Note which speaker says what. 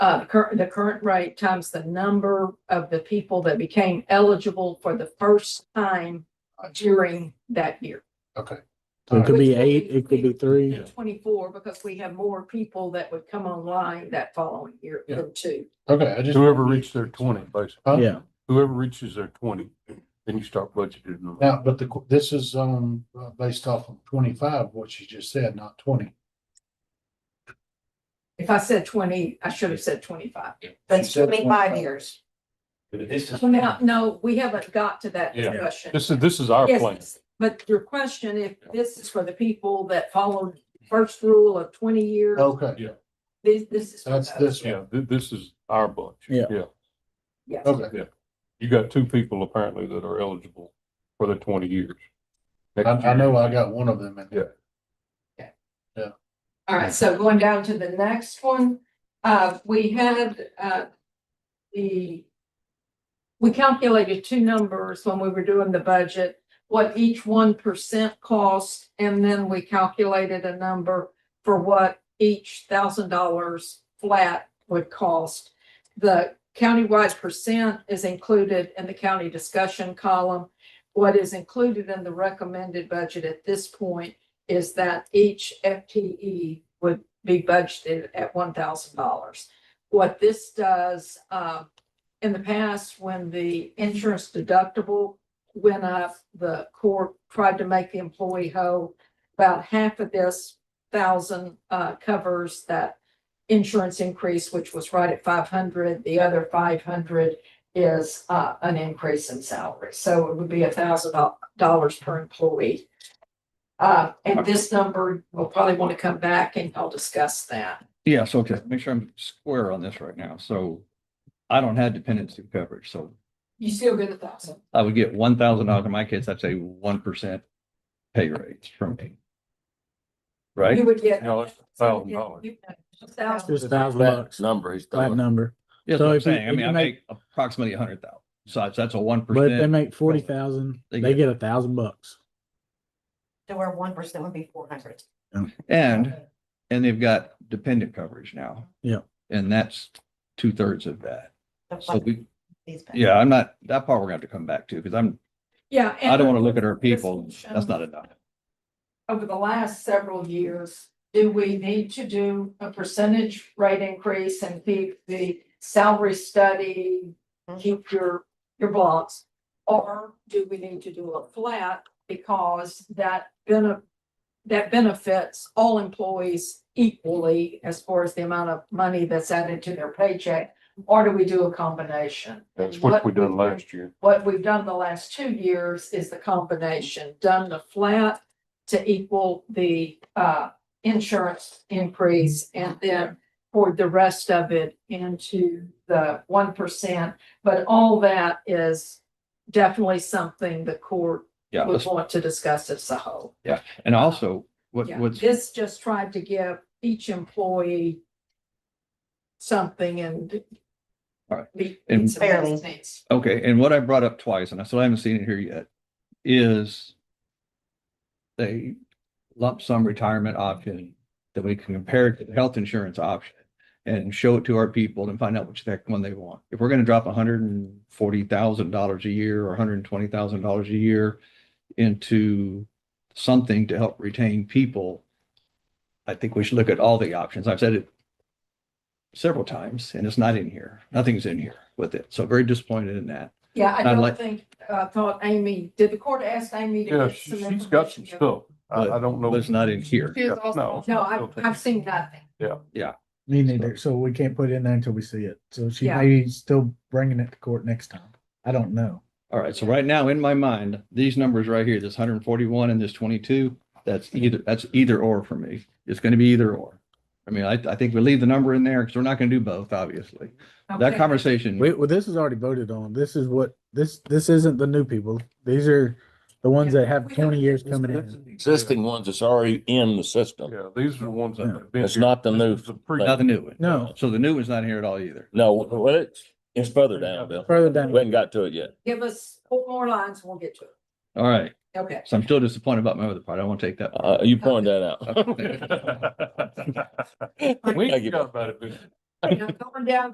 Speaker 1: uh, current, the current rate times the number of the people that became eligible for the first time during that year.
Speaker 2: Okay.
Speaker 3: It could be
Speaker 1: Which would
Speaker 3: eight,
Speaker 1: be-
Speaker 3: it could be three.
Speaker 1: Twenty-four, because we have more people that would come online that following year
Speaker 2: Yeah.
Speaker 1: than two.
Speaker 2: Okay, I just.
Speaker 4: Whoever reached their twenty, basically.
Speaker 2: Huh?
Speaker 3: Yeah,
Speaker 4: Whoever reaches their twenty, then you start budgeting them.
Speaker 2: Now, but the, qu- this is, um, uh, based off of twenty-five, what you just said, not twenty.
Speaker 1: If I said twenty, I should have said twenty-five.
Speaker 5: That's
Speaker 2: She said
Speaker 5: twenty-five
Speaker 2: 25.
Speaker 5: years.
Speaker 4: This
Speaker 1: Well, now, no, we haven't got to that
Speaker 4: Yeah.
Speaker 1: discussion.
Speaker 4: is, this is our plan.
Speaker 1: Yes, but your question, if this is for the people that followed first rule of twenty years,
Speaker 2: Okay,
Speaker 1: this, this is. for
Speaker 2: Oh. that's
Speaker 1: those.
Speaker 2: this one.
Speaker 4: Yeah, thi- this is our bunch.
Speaker 3: Yeah.
Speaker 1: Yes.
Speaker 2: Okay,
Speaker 4: You got two people apparently that are eligible for the twenty years.
Speaker 2: I,
Speaker 4: Next
Speaker 2: I know
Speaker 4: year.
Speaker 2: I got one of them in there.
Speaker 1: All right, so going down to the next one, uh, we had, uh, the. We calculated two numbers when we were doing the budget, what each one percent cost, and then we calculated a number. For what each thousand dollars flat would cost. The countywide percent is included in the county discussion column. What is included in the recommended budget at this point is that each FTE would be budgeted at one thousand dollars. What this does, uh, in the past, when the insurance deductible went up, the court tried to make the employee whole. About half of this thousand, uh, covers that insurance increase, which was right at five hundred. The other five hundred is, uh, an increase in salary. So it would be a thousand dollars per employee. Uh, and this number, we'll probably want to come back and I'll discuss that.
Speaker 6: Yes, okay, make sure I'm square on this right now, so I don't have dependency coverage, so
Speaker 1: You still get a thousand.
Speaker 6: I would get one thousand dollars in my case, that's a one percent pay raise from me.
Speaker 1: You
Speaker 6: Right?
Speaker 1: would get.
Speaker 4: No, it's a thousand dollars.
Speaker 1: Thousand.
Speaker 3: just a thousand bucks,
Speaker 4: Number, he's
Speaker 3: that number.
Speaker 6: Yes,
Speaker 3: So if
Speaker 6: I'm
Speaker 3: you-
Speaker 6: saying, I
Speaker 3: if
Speaker 6: mean,
Speaker 3: you
Speaker 6: I
Speaker 3: make-
Speaker 6: make approximately a hundred thousand, so if that's a one
Speaker 3: But if they
Speaker 6: percent,
Speaker 3: make forty thousand,
Speaker 6: They
Speaker 3: they
Speaker 6: get-
Speaker 3: get a thousand bucks.
Speaker 5: So where one percent would be four hundred.
Speaker 6: and, and they've got dependent coverage now.
Speaker 3: Yeah.
Speaker 6: And that's two thirds of that, so we, yeah, I'm not, that part we're gonna have to come back to, because I'm,
Speaker 1: Yeah.
Speaker 6: I
Speaker 1: and-
Speaker 6: don't wanna look at our people, that's not enough.
Speaker 1: over the last several years, do we need to do a percentage rate increase and keep the salary study? Keep your, your blocks? Or do we need to do a flat because that benefit, that benefits all employees equally as far as the amount of money that's added to their paycheck? Or do we do a combination?
Speaker 4: That's what we done last year.
Speaker 1: What we've done the last two years is the combination, done the flat to equal the uh insurance increase and then poured the rest of it into the one percent. But all that is definitely something the court
Speaker 6: Yeah,
Speaker 1: would
Speaker 6: let's-
Speaker 1: want to discuss as a whole.
Speaker 6: and also, what,
Speaker 1: Yeah,
Speaker 6: what's.
Speaker 1: This just tried to give each employee something and
Speaker 6: All right.
Speaker 1: meet
Speaker 6: And-
Speaker 1: meet some
Speaker 5: Fairly.
Speaker 1: needs.
Speaker 6: Okay, and what I brought up twice, and I still haven't seen it here yet, is a lump sum retirement option that we can compare to the health insurance option and show it to our people and find out which that one they want. If we're gonna drop hundred and forty thousand dollars a year or hundred and twenty thousand dollars a year into something to help retain people, I think we should look at all the options. I've said it several times and it's not in here. Nothing's in here with it. So very disappointed in that.
Speaker 1: Yeah, I
Speaker 6: I'd
Speaker 1: don't
Speaker 6: like-
Speaker 1: think, I thought Amy, did the court ask Amy? to
Speaker 4: Yeah,
Speaker 1: get
Speaker 4: she- she's got some
Speaker 1: information?
Speaker 4: stuff. I, I don't know.
Speaker 6: But it's not in here.
Speaker 4: Yeah, No.
Speaker 1: No, I've, I've seen nothing.
Speaker 3: Me neither, so we can't put it in there until we see it. So she
Speaker 1: Yeah.
Speaker 3: may still bringing it to court next time. I don't know.
Speaker 6: All right, so right now in my mind, these numbers right here, this hundred and forty-one and this twenty-two, that's either, that's either or for me. It's gonna be either or. I mean, I, I think we leave the number in there because we're not gonna do both, obviously. That
Speaker 1: Okay.
Speaker 6: conversation,
Speaker 3: Wait, well, this is already voted on. This is what, this, this isn't the new people. These are the ones that have
Speaker 1: We
Speaker 3: twenty
Speaker 1: don't-
Speaker 3: years coming in.
Speaker 7: existing ones that's already in the system.
Speaker 4: Yeah, these are the ones that have been.
Speaker 7: It's
Speaker 4: here.
Speaker 7: not the
Speaker 4: This
Speaker 7: new
Speaker 4: is the pre-
Speaker 6: not the new one.
Speaker 3: No,
Speaker 6: So the new one's not here at all either.
Speaker 7: No, well, it's, it's further down, Bill.
Speaker 3: further
Speaker 7: We
Speaker 3: down.
Speaker 7: haven't got to it yet.
Speaker 1: Give us four more lines and we'll get to it.
Speaker 6: All right,
Speaker 1: Okay.
Speaker 6: so I'm still disappointed about my other part. I won't take that.
Speaker 7: Uh, you pointed that out.
Speaker 6: part.
Speaker 4: We forgot about it.
Speaker 5: I'm going down